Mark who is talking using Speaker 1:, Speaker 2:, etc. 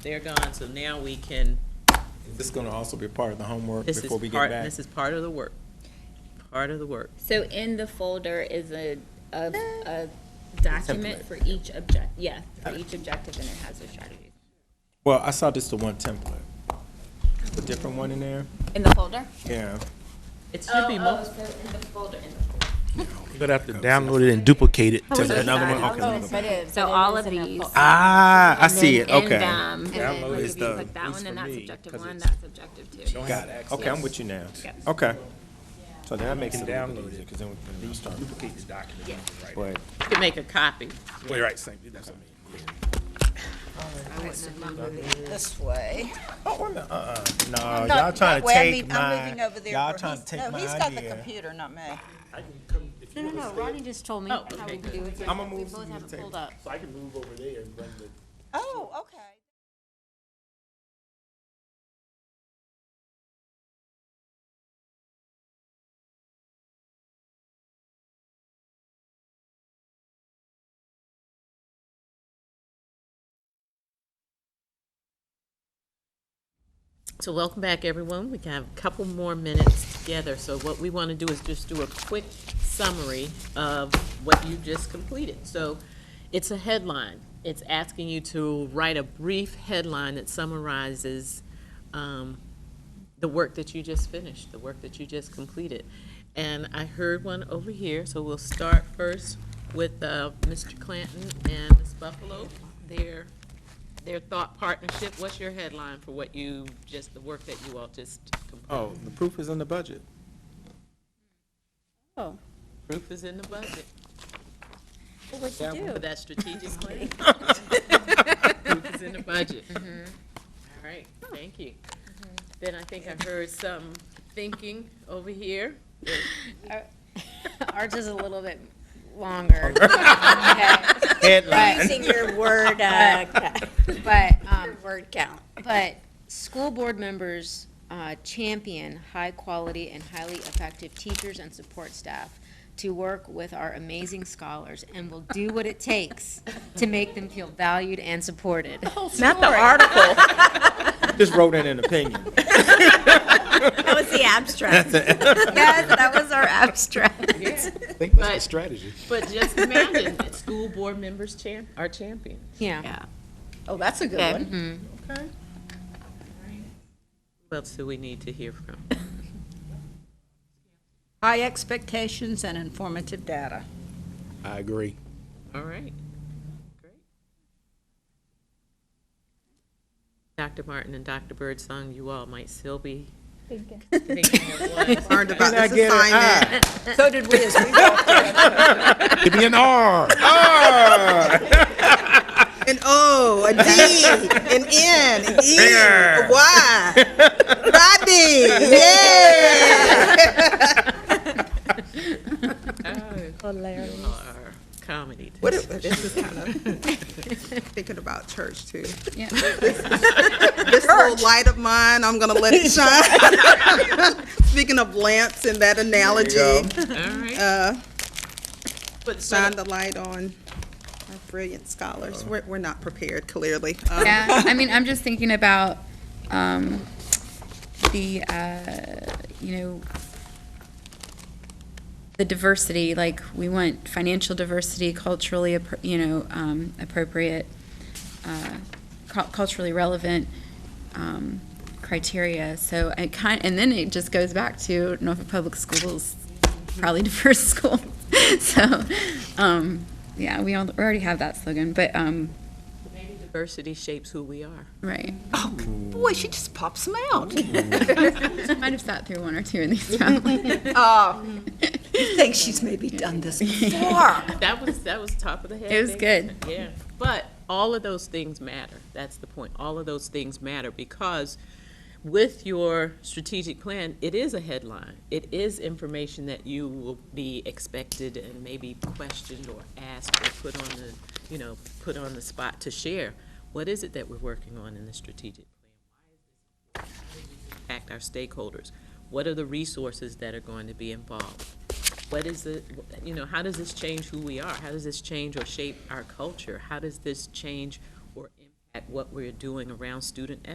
Speaker 1: They're gone, so now we can,
Speaker 2: This is gonna also be part of the homework
Speaker 1: this is
Speaker 2: before we
Speaker 1: part,
Speaker 2: get back.
Speaker 1: this is part of the work. Part of the work.
Speaker 3: So in the folder is a,
Speaker 4: Uh,
Speaker 3: a, a document for each object, yeah, for each objective and it has those strategies.
Speaker 2: Well, I saw just the one template. A different one in there?
Speaker 3: In the folder?
Speaker 2: Yeah.
Speaker 1: It should be multiple.
Speaker 3: so in the folder.
Speaker 5: But I have to download it and duplicate it to another one. Okay.
Speaker 3: So all of these.
Speaker 2: Ah, I see it,
Speaker 3: And,
Speaker 2: okay.
Speaker 3: um, and
Speaker 2: Download
Speaker 3: then like,
Speaker 2: is
Speaker 3: if you
Speaker 2: the-
Speaker 3: click
Speaker 2: at
Speaker 3: that
Speaker 2: least
Speaker 3: one,
Speaker 2: for
Speaker 3: and that's
Speaker 2: me,
Speaker 3: objective
Speaker 2: 'cause
Speaker 3: one,
Speaker 2: it's-
Speaker 3: that's objective two.
Speaker 2: Got it, okay, I'm with you now.
Speaker 3: Yep.
Speaker 2: Okay. So that makes it a little bit
Speaker 5: download it.
Speaker 2: easier, because then we can start.
Speaker 5: Duplicate the document.
Speaker 2: But
Speaker 1: You could make a copy.
Speaker 5: Wait, right, same, that's what I mean.
Speaker 6: this way.
Speaker 2: Oh, wait a minute, uh-uh, no,
Speaker 6: No,
Speaker 2: y'all trying
Speaker 6: that
Speaker 2: to
Speaker 6: way, I
Speaker 2: take
Speaker 6: mean, I'm moving
Speaker 2: my,
Speaker 6: over there
Speaker 2: y'all
Speaker 6: for
Speaker 2: trying to
Speaker 6: he's-
Speaker 2: take
Speaker 6: No,
Speaker 2: my
Speaker 6: he's got the
Speaker 2: idea.
Speaker 6: computer, not me.
Speaker 4: No, no, no, Ronnie just told me
Speaker 1: Oh,
Speaker 4: how
Speaker 1: okay,
Speaker 4: we
Speaker 1: good.
Speaker 4: do it. so
Speaker 2: I'ma
Speaker 4: We
Speaker 2: move
Speaker 4: both
Speaker 2: you
Speaker 4: have
Speaker 2: to
Speaker 4: it
Speaker 2: table.
Speaker 4: pulled up.
Speaker 5: So I can move over there and run the.
Speaker 6: Oh, okay.
Speaker 1: So welcome back, everyone. We can have a couple more minutes together. So what we want to do is just do a quick summary of what you just completed. So it's a headline. It's asking you to write a brief headline that summarizes um, the work that you just finished, the work that you just completed. And I heard one over here, so we'll start first with uh, Mr. Clanton and Ms. Buffalo. Their, their thought partnership, what's your headline for what you, just the work that you all just completed?
Speaker 2: Oh, the proof is in the budget.
Speaker 3: Oh,
Speaker 1: Proof is in the budget,
Speaker 3: what'd you
Speaker 1: for
Speaker 3: do?
Speaker 1: that strategic plan. Proof is in the budget. All right, thank you. Then I think I heard some thinking over here.
Speaker 4: Ours is a little bit longer. Headline.
Speaker 7: Using your word, uh,
Speaker 4: But, um,
Speaker 7: word count.
Speaker 4: but school board members uh, champion high-quality and highly effective teachers and support staff to work with our amazing scholars and will do what it takes to make them feel valued and supported.
Speaker 1: Not the article.
Speaker 2: Just wrote in an opinion.
Speaker 7: That was the abstract. Yes, that was our abstract.
Speaker 5: I think that's
Speaker 1: But-
Speaker 5: the strategy.
Speaker 1: But just imagine that school board members champ, are champion.
Speaker 4: Yeah.
Speaker 6: Oh, that's a good
Speaker 7: Okay.
Speaker 6: one.
Speaker 1: Who else do we need to hear from?
Speaker 6: High expectations and informative data.
Speaker 5: I agree.
Speaker 1: All right. Great. Dr. Martin and Dr. Birdsong, you all might still be thinking of what
Speaker 6: Learned about
Speaker 2: I get an eye?
Speaker 6: So did we as we walked.
Speaker 5: Ah. Give me an R.
Speaker 7: An O, Oh, a D, an N, an E, a Y. Rodney, yay!
Speaker 1: you all are comedy.
Speaker 7: What if, this is kind of, thinking about church too. This little light of mine, I'm gonna let it shine. Speaking of lamps and that analogy,
Speaker 1: All right.
Speaker 7: uh,
Speaker 1: But so-
Speaker 7: shine the light on our brilliant scholars. We're, we're not prepared, clearly. Um,
Speaker 8: Yeah, I mean, I'm just thinking about um, the, uh, you know, the diversity, like, we want financial diversity, culturally, appro- you know, um, appropriate, uh, cu- culturally relevant um, criteria. So it kind, and then it just goes back to Norfolk Public Schools, probably diverse school. So, um, yeah, we al- we already have that slogan, but, um,
Speaker 1: diversity shapes who we are.
Speaker 8: right.
Speaker 6: Boy, she just pops them out.
Speaker 8: Might have sat through one or two of these families.
Speaker 6: Oh, you think she's maybe done this before.
Speaker 1: That was, that was top of the head.
Speaker 8: It was
Speaker 1: baby.
Speaker 8: good.
Speaker 1: Yeah, but all of those things matter. That's the point. All of those things matter because with your strategic plan, it is a headline. It is information that you will be expected and maybe questioned or asked or put on the, you know, put on the spot to share. What is it that we're working on in the strategic plan? Why is this important? How does it Impact our stakeholders. What are the resources that are going to be involved? what is it, you know, how does this change who we are? How does this change or shape our culture? How does this change or impact at what we're doing around student